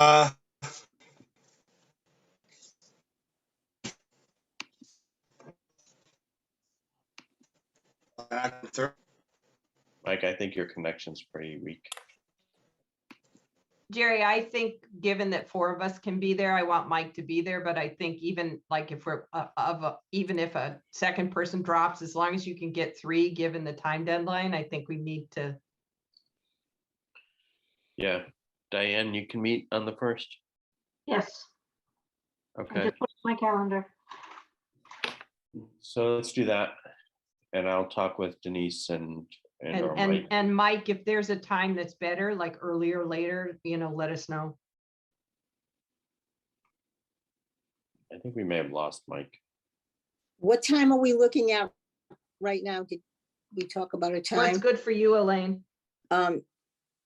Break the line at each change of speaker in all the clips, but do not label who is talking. Uh, back and thir-
Mike, I think your connection's pretty weak.
Jerry, I think, given that four of us can be there, I want Mike to be there, but I think even like if we're uh, of, a- even if a second person drops, as long as you can get three, given the time deadline, I think we need to,
Yeah. Diane, you can meet on the first.
Yes, I
Okay,
just put it in my calendar.
so let's do that. And I'll talk with Denise and, and
and,
or
and,
Mike.
and Mike, if there's a time that's better, like earlier, later, you know, let us know.
I think we may have lost Mike.
What time are we looking at right now? Did we talk about a
What's
time?
good for you, Elaine?
Um,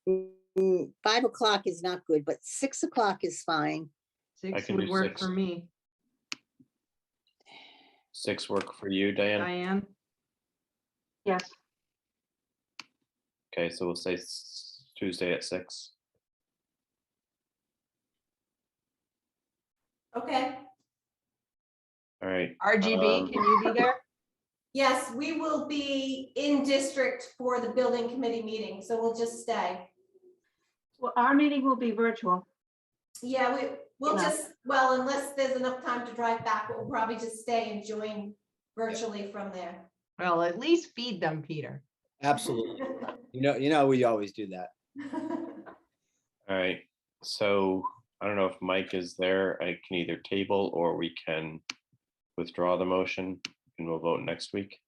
mm, Five o'clock is not good, but six o'clock is fine.
Six
can
would
do
work
six.
for me.
Six work for you, Diane?
Diane,
Yes,
Okay, so we'll say s- Tuesday at six.
Okay,
All right, Um,
RGB, can you be there?
yes, we will be in district for the building committee meeting, so we'll just stay.
well, our meeting will be virtual.
Yeah, we, we'll
Yeah.
just, well, unless there's enough time to drive back, we'll probably just stay and join virtually from there.
Well, at least feed them, Peter.
Absolutely. You know, you know, we always do that.
all right, so I don't know if Mike is there. I can either table or we can withdraw the motion and we'll vote next week.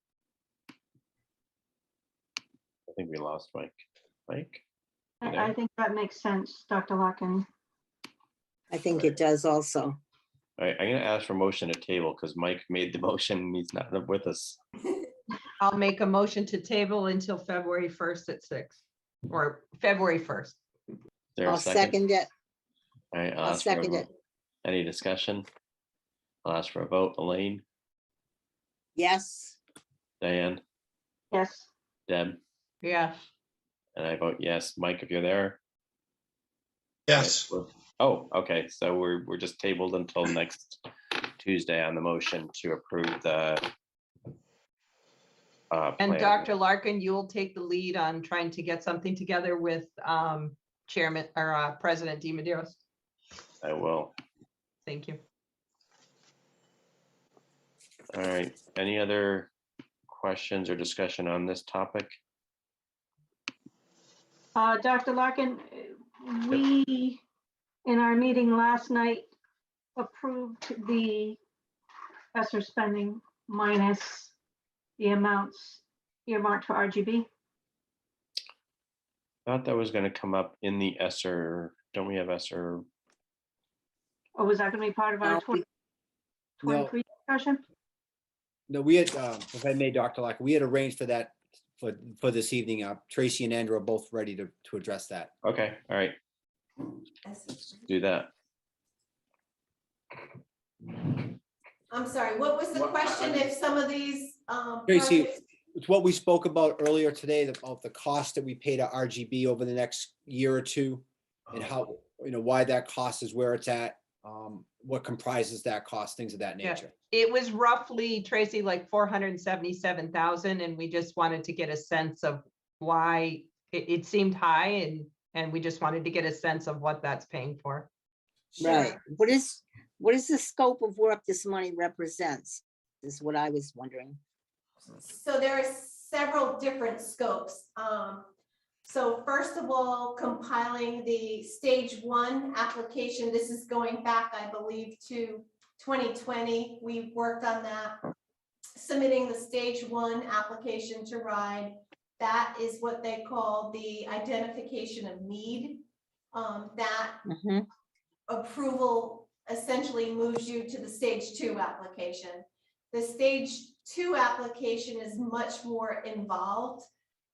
I think we lost Mike. Mike?
I,
Yeah.
I think that makes sense, Dr. Larkin.
I think it does also.
All right, I'm gonna ask for motion to table because Mike made the motion and he's not with us.
I'll make a motion to table until February first at six, or February first.
Is There a
I'll second it.
All right,
I'll
ask for a
second
vote. Any discussion? I'll ask for a vote. Elaine,
Yes,
Diane,
Yes,
Deb,
Yeah,
and I vote yes. Mike, if you're there.
Yes,
Oh, okay, so we're, we're just tabled until next Tuesday on the motion to approve the uh,
and
plan.
Dr. Larkin, you'll take the lead on trying to get something together with um Chairman or uh, President DiMaderos.
I will.
Thank you.
All right, any other questions or discussion on this topic?
uh, Dr. Larkin, uh, we, in our meeting last night, approved the professor spending minus the amounts earmarked for RGB.
Thought that was gonna come up in the ESER. Don't we have ESER?
Or Oh, was that gonna be part of
No,
our
we-
twenty
No.
twenty-three discussion?
No, we had, um, if I may, Dr. Lock, we had arranged for that for, for this evening. Uh, Tracy and Andrew are both ready to, to address that.
Okay, all right, do that.
I'm sorry, what was the
What- I- I
question if some of these, um.
Tracy,
projects-
It's what we spoke about earlier today, about the cost that we pay to RGB over the next year or two and how, you know, why that cost is where it's at, um, what comprises that cost, things of that
Yeah.
nature.
It was roughly, Tracy, like four hundred and seventy-seven thousand, and we just wanted to get a sense of why it it seemed high and and we just wanted to get a sense of what that's paying for.
right.
Sure.
What is, what is the scope of work this money represents? Is what I was wondering.
So there are several different scopes. Um, So first of all, compiling the stage one application, this is going back, I believe, to 2020. We worked on that. Submitting the stage one application to RIDE. That is what they call the identification of need. Um, That
Mhm.
approval essentially moves you to the stage two application. The stage two application is much more involved.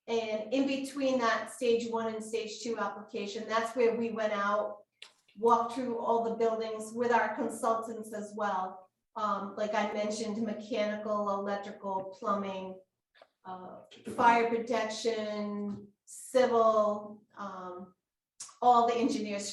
And in between that stage one and stage two application, that's where we went out, walked through all the buildings with our consultants as well. Um, like I mentioned, mechanical, electrical, plumbing, uh, fire protection, civil, um, all the engineers